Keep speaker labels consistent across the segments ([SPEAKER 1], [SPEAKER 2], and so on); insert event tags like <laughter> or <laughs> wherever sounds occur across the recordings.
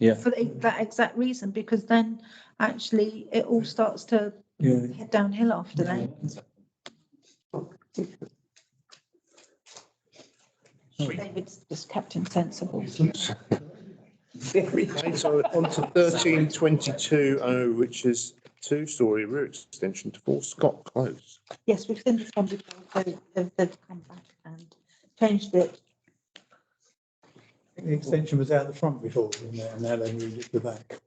[SPEAKER 1] Yeah.
[SPEAKER 2] For the- that exact reason, because then actually it all starts to
[SPEAKER 1] Yeah.
[SPEAKER 2] head downhill after that. David's just Captain Sensible.
[SPEAKER 3] Okay, so on to thirteen twenty-two oh, which is two-story rear extension to Four Scott Close.
[SPEAKER 2] Yes, we've seen this one before, so they've, they've come back and changed it.
[SPEAKER 4] The extension was out the front before, wasn't it? and now they moved it to the back.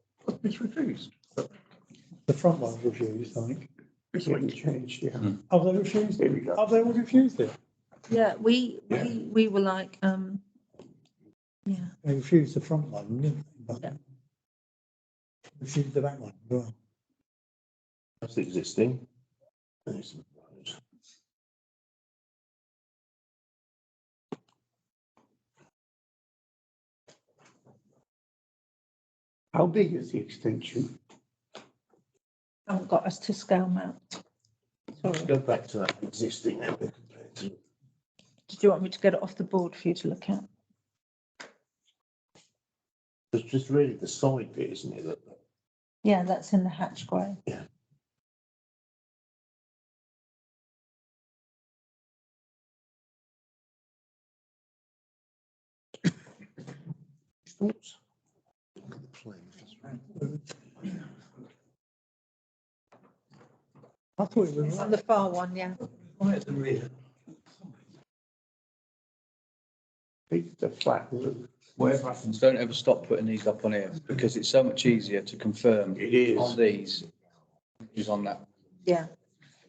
[SPEAKER 5] It's refused.
[SPEAKER 4] The front one was refused, I think.
[SPEAKER 5] It's been changed, yeah.
[SPEAKER 4] Have they refused
[SPEAKER 5] There
[SPEAKER 4] it?
[SPEAKER 5] we go.
[SPEAKER 4] Have they all refused it?
[SPEAKER 2] Yeah, we,
[SPEAKER 5] Yeah.
[SPEAKER 2] we, we were like, um, yeah,
[SPEAKER 4] They refused the front one, didn't they?
[SPEAKER 2] Yeah.
[SPEAKER 4] But Refused the back one as well.
[SPEAKER 3] That's existing.
[SPEAKER 5] How big is the extension?
[SPEAKER 2] haven't oh, got us to scale mount. Sorry,
[SPEAKER 3] Go back to that existing. now.
[SPEAKER 2] did you want me to get it off the board for you to look at?
[SPEAKER 3] It's just really the side bit, isn't it? that-
[SPEAKER 2] Yeah, that's in the hatch grey.
[SPEAKER 3] Thoughts?
[SPEAKER 4] I thought it was
[SPEAKER 2] On
[SPEAKER 4] right
[SPEAKER 2] the far one, yeah.
[SPEAKER 4] right at the rear.
[SPEAKER 5] Big, the flat roof.
[SPEAKER 1] Whatever happens, don't ever stop putting these up on here because it's so much easier to confirm
[SPEAKER 5] It is.
[SPEAKER 1] on these. Is on that.
[SPEAKER 2] Yeah.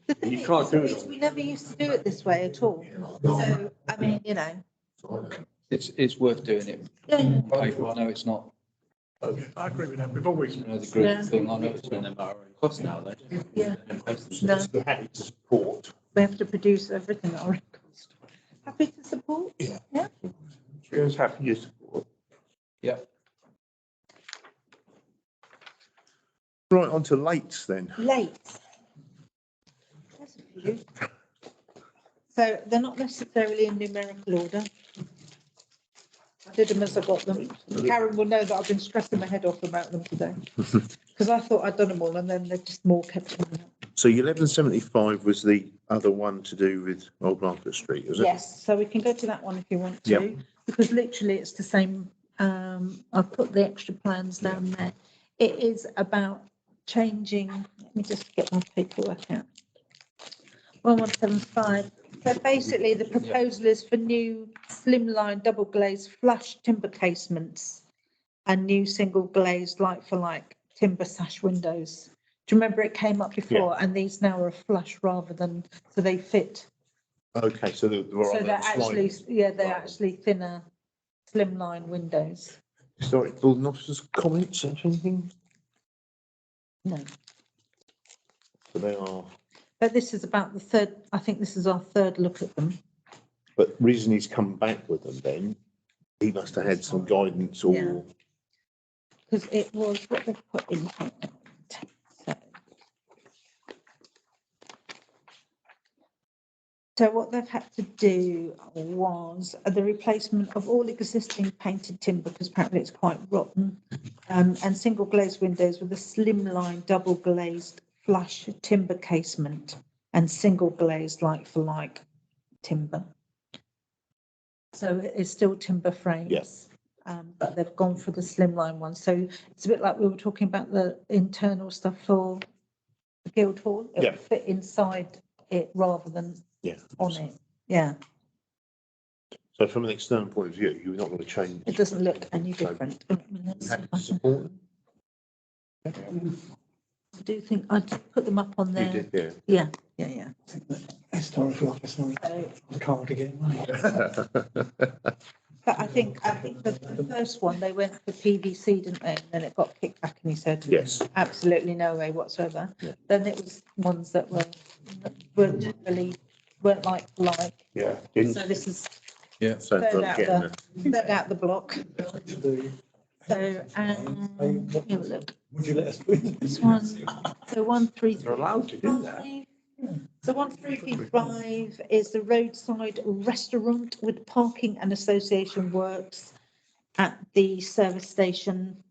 [SPEAKER 2] The thing
[SPEAKER 5] You can't
[SPEAKER 2] is,
[SPEAKER 5] do it
[SPEAKER 2] is
[SPEAKER 5] all.
[SPEAKER 2] we never used to do it this way at all. So, I mean, you know,
[SPEAKER 1] It's, it's worth doing it.
[SPEAKER 2] yeah,
[SPEAKER 1] on paper. I know it's not,
[SPEAKER 5] I agree with that. We've always.
[SPEAKER 1] you know, the
[SPEAKER 2] Yeah.
[SPEAKER 1] group thing. I know it's not. Cost now, though.
[SPEAKER 2] yeah, No.
[SPEAKER 3] It's the habit to support.
[SPEAKER 2] we have to produce everything at our records. Happy to support?
[SPEAKER 5] Cheers, happy years.
[SPEAKER 1] Yeah.
[SPEAKER 3] Right, on to Lates then.
[SPEAKER 2] Late. There's a few. So they're not necessarily in numerical order. I did them as I got them. Karen will know that I've been stressing my head off about them
[SPEAKER 5] <laughs>
[SPEAKER 2] today. Because I thought I'd done them all and then they just more kept coming up.
[SPEAKER 3] So eleven seventy-five was the other one to do with Old Market Street, was it?
[SPEAKER 2] Yes, so we can go to that one if you want to,
[SPEAKER 3] Yep.
[SPEAKER 2] because literally it's the same, um, I've put the extra plans down there. It is about changing, let me just get my paperwork out. One one seven five, so basically the proposal is for new slimline double glazed flush timber casements and new single glazed like for like timber sash windows. Do you remember it came up before and these now are flush rather than, so they fit
[SPEAKER 3] Okay, so they were
[SPEAKER 2] so
[SPEAKER 3] on
[SPEAKER 2] they're
[SPEAKER 3] that
[SPEAKER 2] actually,
[SPEAKER 3] slide.
[SPEAKER 2] yeah, they're
[SPEAKER 3] Right.
[SPEAKER 2] actually thinner, slimline windows.
[SPEAKER 3] Historic building officers' comments or anything?
[SPEAKER 2] No,
[SPEAKER 3] So they are,
[SPEAKER 2] but this is about the third, I think this is our third look at them.
[SPEAKER 3] but reason he's come back with them then, he must have had some guidance or.
[SPEAKER 2] Because it was what they put in. here. So- So what they've had to do was uh, the replacement of all existing painted timber, because apparently it's quite rotten. Um, and single glazed windows with a slimline, double glazed flush timber casement and single glazed like for like timber. So it is still timber frames.
[SPEAKER 3] Yes.
[SPEAKER 2] Um, but they've gone for the slimline one. So it's a bit like we were talking about the internal stuff for the Guildhall. It
[SPEAKER 3] Yeah.
[SPEAKER 2] would fit inside it rather than
[SPEAKER 3] Yeah.
[SPEAKER 2] on it. Yeah,
[SPEAKER 3] So from an external point of view, you're not going to change.
[SPEAKER 2] it doesn't look any
[SPEAKER 3] So-
[SPEAKER 2] different. I mean, let's see
[SPEAKER 3] Happy
[SPEAKER 2] if
[SPEAKER 3] to
[SPEAKER 2] I can-
[SPEAKER 3] support them?
[SPEAKER 2] I do think I did put them up on
[SPEAKER 3] You
[SPEAKER 2] there.
[SPEAKER 3] did, yeah.
[SPEAKER 2] Yeah, yeah, yeah.
[SPEAKER 4] Historical office, sorry.
[SPEAKER 2] So
[SPEAKER 4] I can't get money.
[SPEAKER 2] But I think, I think the the first one, they went for PVC, didn't they? And then it got kicked back and he said,
[SPEAKER 3] Yes,
[SPEAKER 2] absolutely no way whatsoever.
[SPEAKER 3] Yeah.
[SPEAKER 2] Then it was ones that were, weren't really, weren't like, like,
[SPEAKER 5] Yeah.
[SPEAKER 2] so this is
[SPEAKER 3] so
[SPEAKER 2] Third
[SPEAKER 3] I'm
[SPEAKER 2] out
[SPEAKER 3] getting
[SPEAKER 2] there.
[SPEAKER 3] a
[SPEAKER 2] third out the block.
[SPEAKER 4] The-
[SPEAKER 2] So, um, let me have a look,
[SPEAKER 4] Would you let us do this?
[SPEAKER 2] this one, so one, three,
[SPEAKER 5] They're allowed to do that.
[SPEAKER 2] three. So one, three, three, five is the roadside restaurant with parking and association works at the service station